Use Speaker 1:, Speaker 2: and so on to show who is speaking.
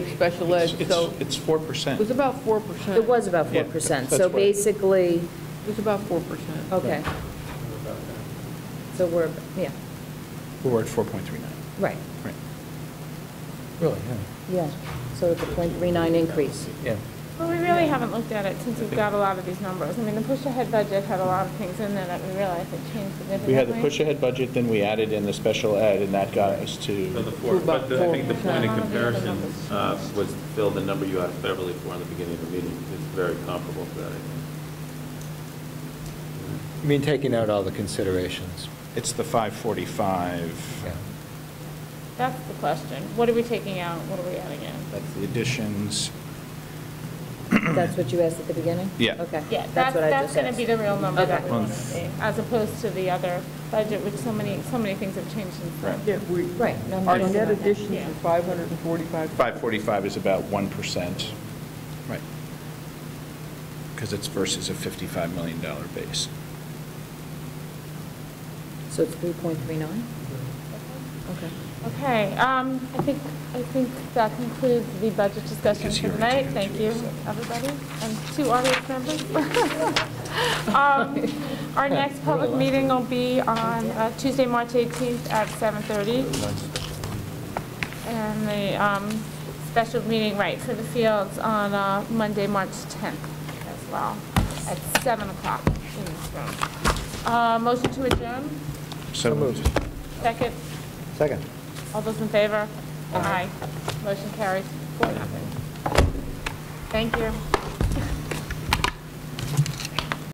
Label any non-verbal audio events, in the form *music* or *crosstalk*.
Speaker 1: special ed,
Speaker 2: It's-
Speaker 1: so
Speaker 2: It's four
Speaker 1: it
Speaker 2: percent.
Speaker 1: was about 4%.
Speaker 3: It was about
Speaker 2: Yeah,
Speaker 3: 4%.
Speaker 2: that's
Speaker 3: So
Speaker 2: right.
Speaker 3: basically,
Speaker 1: It was about 4%.
Speaker 3: okay, so we're, yeah,
Speaker 2: We're at four point three nine.
Speaker 3: right,
Speaker 2: Right.
Speaker 4: Really,
Speaker 3: yeah. So it's a .39 increase.
Speaker 4: yeah.
Speaker 5: Well, we really haven't looked at it since we've got a lot of these numbers. I mean, the push-ahead budget had a lot of things in there that we realized had changed significantly.
Speaker 2: We had the push-ahead budget, then we added in the special ed, and that got us
Speaker 6: So the
Speaker 2: to,
Speaker 6: four, but the- I think the point of
Speaker 5: About four percent.
Speaker 6: comparison uh, was, Phil, the number you had verbally for in the beginning of the meeting is very comparable to that, I think.
Speaker 4: I mean, taking out all the considerations.
Speaker 2: it's the five forty-five,
Speaker 4: Yeah.
Speaker 5: That's the question. What are we taking out? What are we adding in?
Speaker 2: that's the additions.
Speaker 3: That's what you asked at the beginning?
Speaker 2: Yeah.
Speaker 3: Okay.
Speaker 5: Yeah,
Speaker 3: That's
Speaker 5: that's,
Speaker 3: what I
Speaker 5: that's
Speaker 3: just
Speaker 5: going to be the
Speaker 3: asked.
Speaker 5: real number that
Speaker 3: Okay.
Speaker 5: we want to see, as opposed to the other budget, which so many, so many things have changed since then.
Speaker 2: Right.
Speaker 1: Yeah, we,
Speaker 3: Right, no, we
Speaker 1: our
Speaker 3: don't
Speaker 1: net
Speaker 3: know that.
Speaker 1: additions
Speaker 5: Yeah.
Speaker 1: are 545.
Speaker 2: Five forty-five is about one percent. Right. Because it's versus a fifty-five million dollar base.
Speaker 3: So it's 3.39? Okay.
Speaker 5: Okay, um, I think, I think that concludes the budget discussion
Speaker 2: Because
Speaker 5: for
Speaker 2: you're
Speaker 5: tonight.
Speaker 2: into
Speaker 5: Thank
Speaker 2: it,
Speaker 5: you,
Speaker 2: so.
Speaker 5: everybody, and two audience members. *laughs* Um, Our next public meeting will be on uh, Tuesday, March 18th at 7:30. And the um, special meeting, right, for the fields on uh, Monday, March 10th as well, at 7 o'clock in this room. Uh, Motion to adjourn,
Speaker 2: So moved.
Speaker 5: second.
Speaker 4: Second.
Speaker 5: All those in favor? Aye. Motion carries, four, nothing. Thank you.